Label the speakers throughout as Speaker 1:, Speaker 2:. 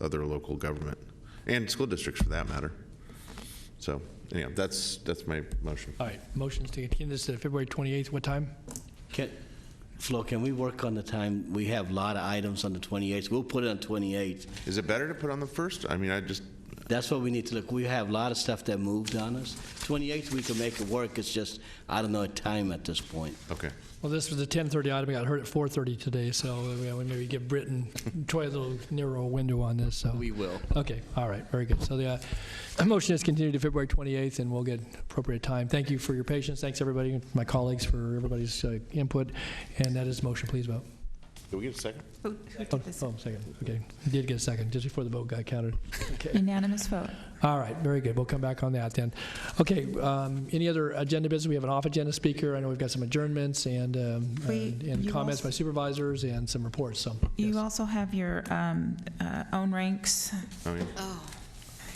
Speaker 1: other local government and school districts for that matter. So anyhow, that's, that's my motion.
Speaker 2: All right, motions to continue this to February 28th, what time?
Speaker 3: Can, Flo, can we work on the time? We have a lot of items on the 28th. We'll put it on 28th.
Speaker 1: Is it better to put on the first? I mean, I just,
Speaker 3: That's what we need to look. We have a lot of stuff that moved on us. 28th, we can make it work. It's just, I don't know a time at this point.
Speaker 1: okay.
Speaker 2: Well, this was a 10:30 item, I got heard at 4:30 today, so uh, we maybe give Britt and Troy a little narrow window on this, so.
Speaker 3: We will.
Speaker 2: Okay, all right, very good. So the uh, motion is continued to February 28th, and we'll get appropriate time. Thank you for your patience, thanks everybody, my colleagues for everybody's uh, input, and that is motion, please vote.
Speaker 1: Did we get a second?
Speaker 4: Who- who
Speaker 2: Oh,
Speaker 4: took this?
Speaker 2: oh, second, okay, did get a second, just before the vote got counted.
Speaker 4: Unanimous vote.
Speaker 2: All right, very good. We'll come back on that then. Okay, um, any other agenda business? We have an off-agenda speaker. I know we've got some adjournments and, um,
Speaker 4: We-
Speaker 2: and and
Speaker 4: you
Speaker 2: comments
Speaker 4: also-
Speaker 2: by supervisors and some reports, so. yes.
Speaker 4: You also have your um, uh, own ranks.
Speaker 1: I mean,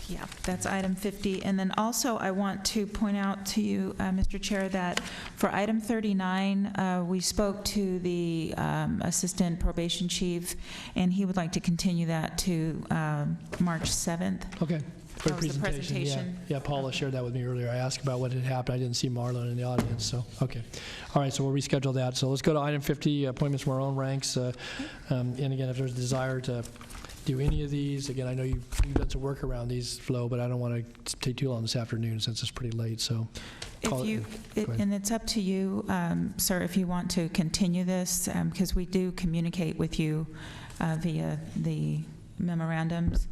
Speaker 4: Yeah, that's item 50. And then also, I want to point out to you, uh, Mr. Chair, that for item 39, uh, we spoke to the um, Assistant Probation Chief, and he would like to continue that to um, March 7th.
Speaker 2: Okay. Good
Speaker 4: That was the
Speaker 2: yeah.
Speaker 4: presentation.
Speaker 2: Yeah, Paula shared that with me earlier. I asked about what had happened. I didn't see Marlon in the audience, so, okay. All right, so we'll reschedule that. So let's go to item 50, appointments from our own ranks. Uh, um, And again, if there's a desire to do any of these, again, I know you've you've done some work around these, Flo, but I don't want to take too long this afternoon since it's pretty late, so. call
Speaker 4: If
Speaker 2: it-
Speaker 4: you, it-
Speaker 2: ahead.
Speaker 4: and it's up to you, um, sir, if you want to continue this, because we do communicate with you uh, via the memorandums.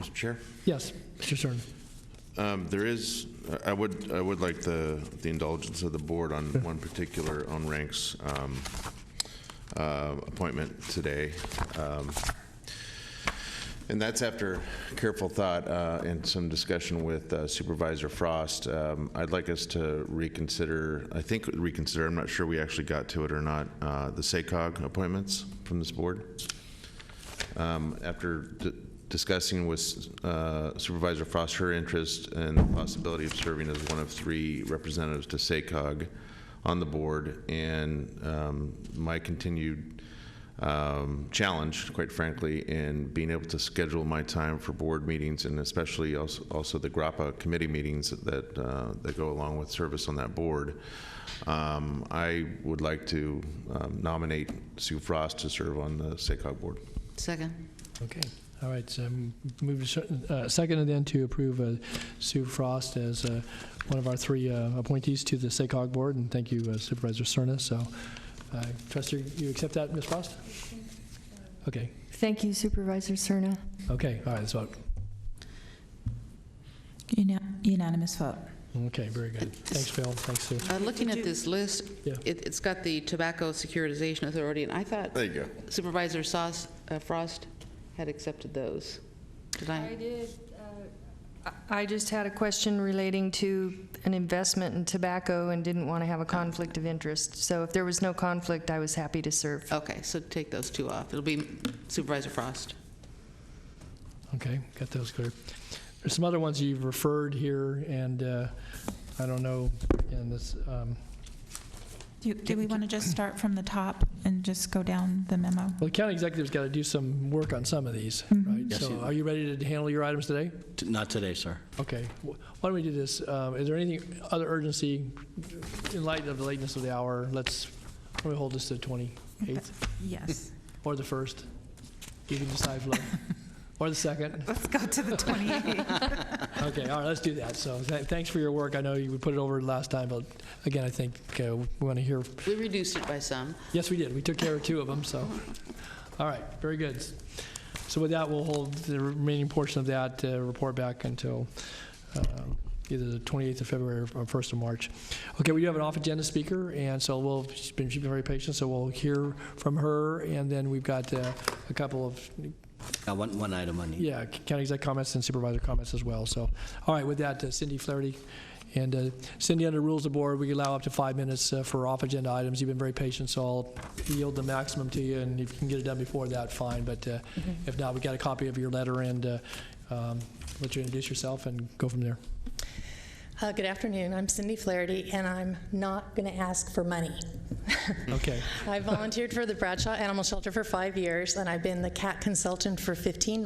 Speaker 1: Mr. Chair?
Speaker 2: Yes, Mr. Stern.
Speaker 1: Um, There is, I would, I would like the, the indulgence of the board on one particular on ranks um, uh, appointment today. Um, And that's after careful thought uh, and some discussion with uh, Supervisor Frost. Um, I'd like us to reconsider, I think reconsider, I'm not sure we actually got to it or not, uh, the SACOG appointments from this board um, after d- discussing with uh, Supervisor Frost her interest and the possibility of serving as one of three representatives to SACOG on the board, and um, my continued um, challenge, quite frankly, in being able to schedule my time for board meetings and especially also, also the GRAPPA committee meetings that, uh, that go along with service on that board. Um, I would like to um, nominate Sue Frost to serve on the SACOG board.
Speaker 5: Second.
Speaker 2: Okay, all right, so m- move to, cer- uh, second and then to approve uh, Sue Frost as uh, one of our three uh, appointees to the SACOG Board, and thank you uh, Supervisor Cerna, so, uh, Trustee, you accept that, Ms. Frost? Okay,
Speaker 6: Thank you Supervisor Cerna.
Speaker 2: okay, all right, let's vote.
Speaker 4: Una- Unanimous vote.
Speaker 2: Okay, very good. Thanks, Phil, thanks, Sue.
Speaker 5: Uh, Looking at this list,
Speaker 2: Yeah.
Speaker 5: it- it's got the Tobacco Securitization Authority, and I thought
Speaker 1: There you go.
Speaker 5: Supervisor Sauce- uh, Frost had accepted those. Did
Speaker 6: I
Speaker 5: I?
Speaker 6: did. uh, I I just had a question relating to an investment in tobacco and didn't want to have a conflict of interest. So if there was no conflict, I was happy to serve.
Speaker 5: Okay, so take those two off. It'll be Supervisor Frost.
Speaker 2: Okay, got those clear. There's some other ones you've referred here, and uh, I don't know, in this, um,
Speaker 4: Do you- do we want to just start from the top and just go down the memo?
Speaker 2: well, the county executive's got to do some work on some of these,
Speaker 4: Mm-hmm.
Speaker 2: right?
Speaker 3: Yes, he
Speaker 2: So
Speaker 3: will.
Speaker 2: are you ready to handle your items today?
Speaker 3: T- Not today, sir.
Speaker 2: Okay, wh- why don't we do this? Um, Is there anything, other urgency, in light of the lateness of the hour, let's, why don't we hold this to the 28th
Speaker 4: Yes.
Speaker 2: or the 1st? You can decide, Flo. Or the 2nd?
Speaker 4: Let's go to the 28th.
Speaker 2: Okay, all right, let's do that. So tha- thanks for your work. I know you we put it over last time, but again, I think uh, we want to hear,
Speaker 5: We reduced it by some.
Speaker 2: yes, we did. We took care of two of them, so. All right, very good. So with that, we'll hold the remaining portion of that uh, report back until um, either the 28th of February or 1st of March. Okay, we do have an off-agenda speaker, and so we'll, she's been, she's been very patient, so we'll hear from her, and then we've got uh, a couple of,
Speaker 3: I want one item on each.
Speaker 2: yeah, county exec comments and supervisor comments as well. So, all right, with that, uh, Cindy Flaherty. And uh, Cindy, under rules of board, we allow up to five minutes uh, for off-agenda items. You've been very patient, so I'll yield the maximum to you, and if you can get it done before that, fine. But uh, if not, we got a copy of your letter, and uh, um, let you introduce yourself and go from there.
Speaker 7: Uh, Good afternoon. I'm Cindy Flaherty, and I'm not going to ask for money.
Speaker 2: Okay.
Speaker 7: I volunteered for the Bradshaw Animal Shelter for five years, and I've been the cat consultant for 15